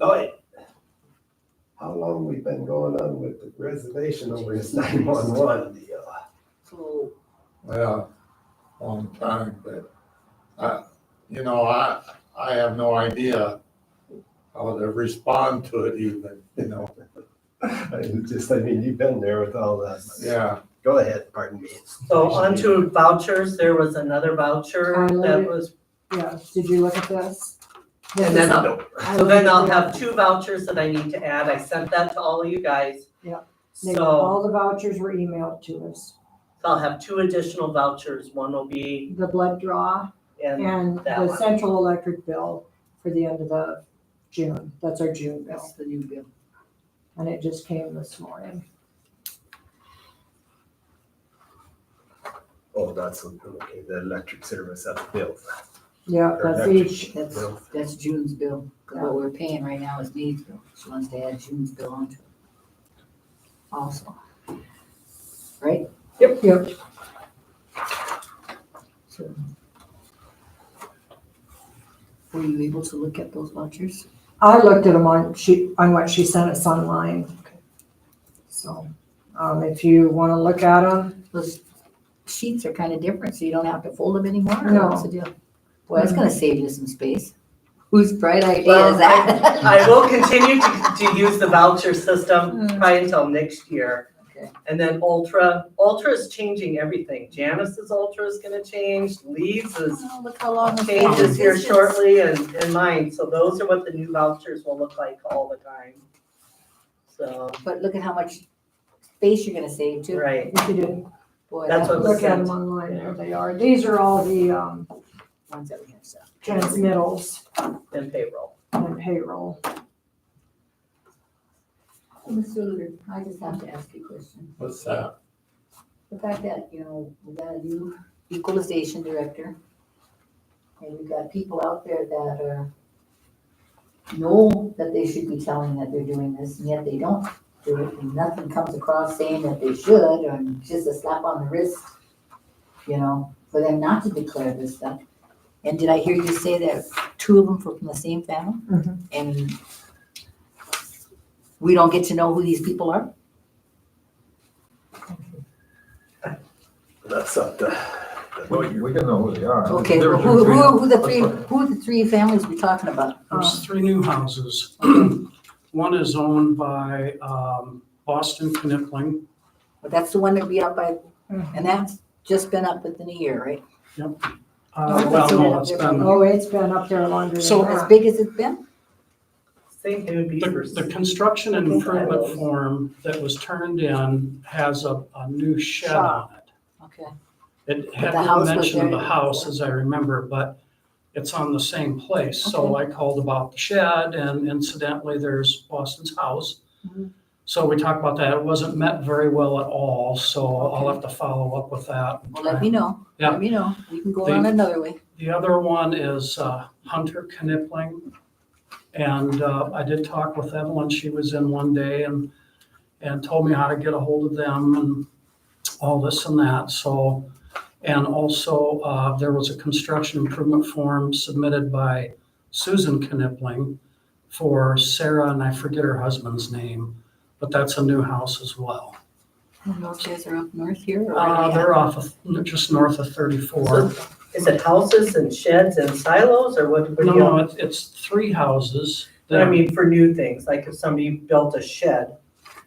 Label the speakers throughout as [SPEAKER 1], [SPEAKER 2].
[SPEAKER 1] night.
[SPEAKER 2] How long we been going on with the reservation over this nine one one deal?
[SPEAKER 3] So,
[SPEAKER 4] Well, long time, but I, you know, I, I have no idea how to respond to it even, you know,
[SPEAKER 2] I Just, I mean, you've been there with all that.
[SPEAKER 4] yeah.
[SPEAKER 2] Go ahead, pardon me.
[SPEAKER 3] so onto vouchers, there was another voucher
[SPEAKER 5] Um,
[SPEAKER 3] that was,
[SPEAKER 5] Yeah, did you look at this? This
[SPEAKER 3] And then
[SPEAKER 5] is-
[SPEAKER 3] I'll-
[SPEAKER 5] I
[SPEAKER 3] so then
[SPEAKER 5] looked
[SPEAKER 3] I'll
[SPEAKER 5] at
[SPEAKER 3] have two vouchers that I need to add. I sent that to all of you guys.
[SPEAKER 5] Yeah. They-
[SPEAKER 3] So,
[SPEAKER 5] All the vouchers were emailed to us.
[SPEAKER 3] so I'll have two additional vouchers. One will be,
[SPEAKER 5] The blood draw
[SPEAKER 3] and
[SPEAKER 5] and
[SPEAKER 3] that
[SPEAKER 5] the
[SPEAKER 3] one.
[SPEAKER 5] central electric bill for the end of the June. That's our June bill.
[SPEAKER 6] That's the new bill.
[SPEAKER 5] And it just came this morning.
[SPEAKER 2] Oh, that's, okay, the electric service, that's built.
[SPEAKER 5] Yeah, that's each,
[SPEAKER 6] That's,
[SPEAKER 2] Bill.
[SPEAKER 6] that's June's bill. 'Cause What we're paying right now is May's bill. She wants to add June's bill onto it. Also,
[SPEAKER 5] yep, yep.
[SPEAKER 6] so. Were you able to look at those vouchers?
[SPEAKER 5] I looked at them on, she, on what she sent us online. So, um, if you want to look at them,
[SPEAKER 6] Those sheets are kind of different, so you don't have to fold them anymore. or
[SPEAKER 5] No.
[SPEAKER 6] What's the deal? Well, that's gonna save you some space. Whose bright idea
[SPEAKER 3] Well,
[SPEAKER 6] is that?
[SPEAKER 3] I will continue to, to use the voucher system
[SPEAKER 5] Mm.
[SPEAKER 3] probably until next year.
[SPEAKER 6] Okay.
[SPEAKER 3] And then Ultra, Ultra is changing everything. Janice's Ultra is gonna change, Lee's is
[SPEAKER 6] Oh, Look how long. the
[SPEAKER 3] changes here
[SPEAKER 6] vouchers-
[SPEAKER 3] shortly and, and mine, so those are what the new vouchers will look like all the time. So,
[SPEAKER 6] But look at how much space you're gonna save too.
[SPEAKER 3] right,
[SPEAKER 5] if you didn't
[SPEAKER 6] Boy,
[SPEAKER 3] That's
[SPEAKER 6] that
[SPEAKER 3] what
[SPEAKER 6] was
[SPEAKER 5] look at
[SPEAKER 3] sent.
[SPEAKER 5] them online, there they are. These are all the, um,
[SPEAKER 6] the ones that we have, so.
[SPEAKER 5] transmittals.
[SPEAKER 3] and payroll.
[SPEAKER 5] and payroll.
[SPEAKER 6] Mr. Luder, I just have to ask you a question.
[SPEAKER 4] What's that?
[SPEAKER 6] The fact that, you know, we got a new equalization director, and we've got people out there that are, know that they should be telling that they're doing this, and yet they don't do it, and nothing comes across saying that they should, or just a slap on the wrist, you know, for them not to declare this stuff. And did I hear you say that two of them were from the same family?
[SPEAKER 5] Mhm.
[SPEAKER 6] And we don't get to know who these people are?
[SPEAKER 2] That's up to.
[SPEAKER 7] Well, we can know who they are.
[SPEAKER 6] Okay,
[SPEAKER 7] There- there are
[SPEAKER 6] who, who,
[SPEAKER 7] three-
[SPEAKER 6] who are the three, who are the three families we're talking about?
[SPEAKER 5] Um,
[SPEAKER 8] There's three new houses. One is owned by um, Boston Knipling.
[SPEAKER 6] That's the one that'd be up by, and that's just been up within a year, right? Oh,
[SPEAKER 8] Uh, Well, no, it's been,
[SPEAKER 5] Oh, it's been up there longer than
[SPEAKER 8] So-
[SPEAKER 6] As
[SPEAKER 5] that.
[SPEAKER 6] big as Mm-hmm. it's been?
[SPEAKER 3] Think it would be
[SPEAKER 8] the
[SPEAKER 3] for
[SPEAKER 8] the construction and improvement form that was turned in has a, a new shed on it.
[SPEAKER 6] Okay.
[SPEAKER 8] It
[SPEAKER 6] The house
[SPEAKER 8] had
[SPEAKER 6] was
[SPEAKER 8] mention of the
[SPEAKER 6] there.
[SPEAKER 8] house, as I remember, but it's on the same place. So I called about the shed and incidentally, there's Boston's house.
[SPEAKER 6] Mhm.
[SPEAKER 8] So we talked about that. It wasn't met very well at all, so I'll have to follow up with that. and
[SPEAKER 6] Well,
[SPEAKER 8] try
[SPEAKER 6] let me know.
[SPEAKER 8] Yeah.
[SPEAKER 6] Let me know. We can go on
[SPEAKER 8] They-
[SPEAKER 6] another way.
[SPEAKER 8] The other one is uh, Hunter Knipling. And uh, I did talk with Evelyn, she was in one day and, and told me how to get a hold of them and all this and that, so. And also, uh, there was a construction improvement form submitted by Susan Knipling for Sarah, and I forget her husband's name, but that's a new house as well.
[SPEAKER 6] I don't know if you guys are up north here or.
[SPEAKER 8] Uh, They're off of, just north of 34.
[SPEAKER 3] Is it houses and sheds and silos or what? what do
[SPEAKER 8] No,
[SPEAKER 3] you-
[SPEAKER 8] no, it's, it's three houses.
[SPEAKER 3] uh, But I mean, for new things, like if somebody built a shed,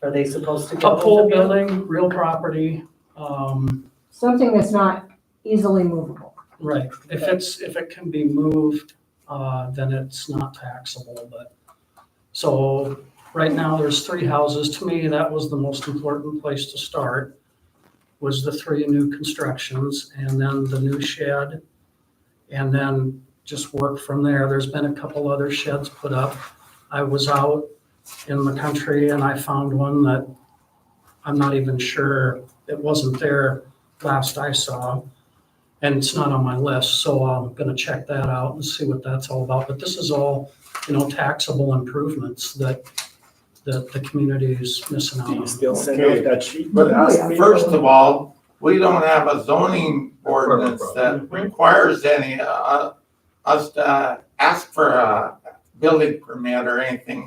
[SPEAKER 3] are they supposed to
[SPEAKER 8] A
[SPEAKER 3] go?
[SPEAKER 8] pole
[SPEAKER 3] with the bill?
[SPEAKER 8] building, real property, um,
[SPEAKER 5] Something that's not easily movable.
[SPEAKER 8] right, if it's, if it can be moved, uh, then it's not taxable, but. So, right now, there's three houses, to me, that was the most important place to start, was the three new constructions, and then the new shed, and then just work from there, there's been a couple other sheds put up. I was out in the country and I found one that I'm not even sure, it wasn't there last I saw. And it's not on my list, so I'm gonna check that out and see what that's all about. But this is all, you know, taxable improvements that, that the community is missing out
[SPEAKER 2] Do you
[SPEAKER 8] on.
[SPEAKER 2] still send out that sheet? Oh,
[SPEAKER 5] But ask me-
[SPEAKER 2] First,
[SPEAKER 5] First
[SPEAKER 9] First of all, we don't have a zoning ordinance that requires any, uh, us to ask for a building permit or anything